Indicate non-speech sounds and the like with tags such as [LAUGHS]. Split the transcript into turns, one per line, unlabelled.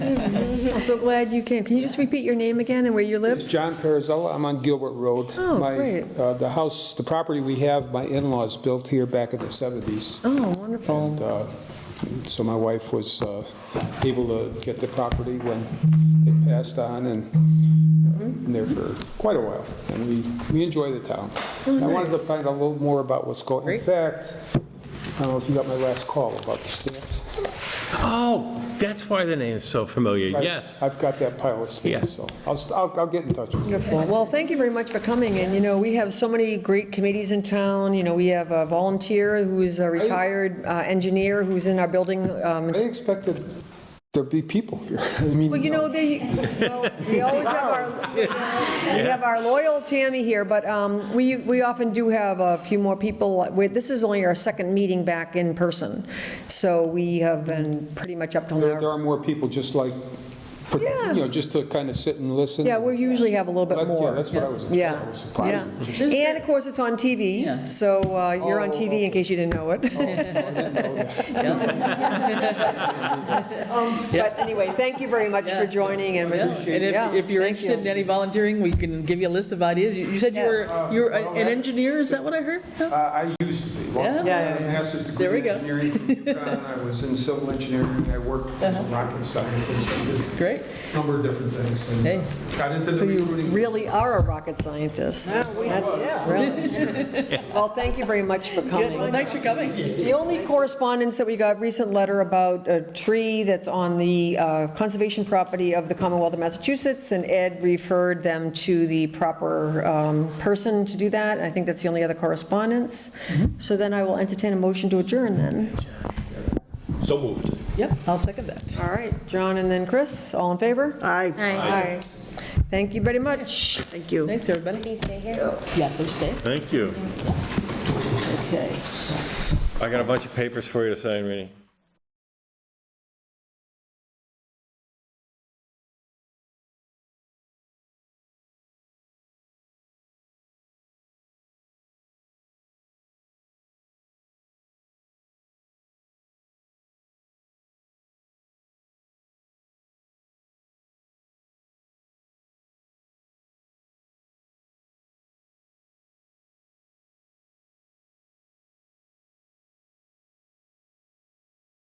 so glad you came. Can you just repeat your name again and where you
It's
live?
John Perizella, I'm on Gilbert Road.
Oh,
My,
great.
uh, The house, the property we have, my in-laws built here back in the 70s.
Oh,
And
wonderful.
uh, so my wife was uh, able to get the property when it passed on and
Mm-hmm.
been there for quite a while. And we, we enjoy the town. I wanted to
Oh, nice.
find out a little more about what's going, in fact, I don't know if you got my last call about the stamps.
Oh, that's why the name is so familiar.
I've-
Yes.
I've got that pile of
Yeah.
stamps, so I'll, st- I'll I'll get in touch with you.
Wonderful. Well, thank you very much for coming, and, you know, we have so many great committees in town. You know, we have a volunteer who's a retired uh, engineer who's in our building. um,
I expected there'd be people here. [LAUGHS] I mean,
Well, you know, they, well, we always have our, we have our loyal Tammy here, but um, we, we often do have a few more people. We- This is only our second meeting back in person, so we have been pretty much up till
There there
now.
are more people just like, put-
Yeah.
you know, just to kind of sit and listen.
Yeah, we usually have a little
That-
bit
yeah,
more.
that's what I was-
Yeah,
I was surprised.
yeah. And of course, it's on TV, so uh, you're on
Oh,
TV in case you didn't know
[LAUGHS]
it.
Oh.
Um, But anyway, thank you very much for joining and.
Yeah, And
Yeah,
if, if you're
thank you.
interested in any volunteering, we can give you a list of ideas. You you said you
Yes.
were, you're a- an engineer, is that what I heard?
Uh, I used to be. Well,
Yeah.
I
Yeah, yeah,
have a master's degree
There we
in
go.
engineering. from
[LAUGHS]
UConn. I was in civil engineering. I
Uh-huh.
worked as a rocket scientist. I did
Great.
a number of different things. and,
Hey.
uh, Got into the recruiting.
really are a rocket scientist. That's
[LAUGHS]
really. Well, thank you very much for
Good. Well,
coming.
thanks for coming.
The only correspondence that we got, recent letter about a tree that's on the uh, conservation property of the Commonwealth of Massachusetts, and Ed referred them to the proper um, person to do that. I think that's the only other correspondence. So then I will entertain a motion to adjourn then.
So moved.
Yep, I'll second that.
All right, John and then Chris, all in favor? Aye. Aye. Thank you very much. Thank you.
Thanks, everybody. Yeah, please stay.
Thank you.
Okay.
I got a bunch of papers for you to sign, Reenie.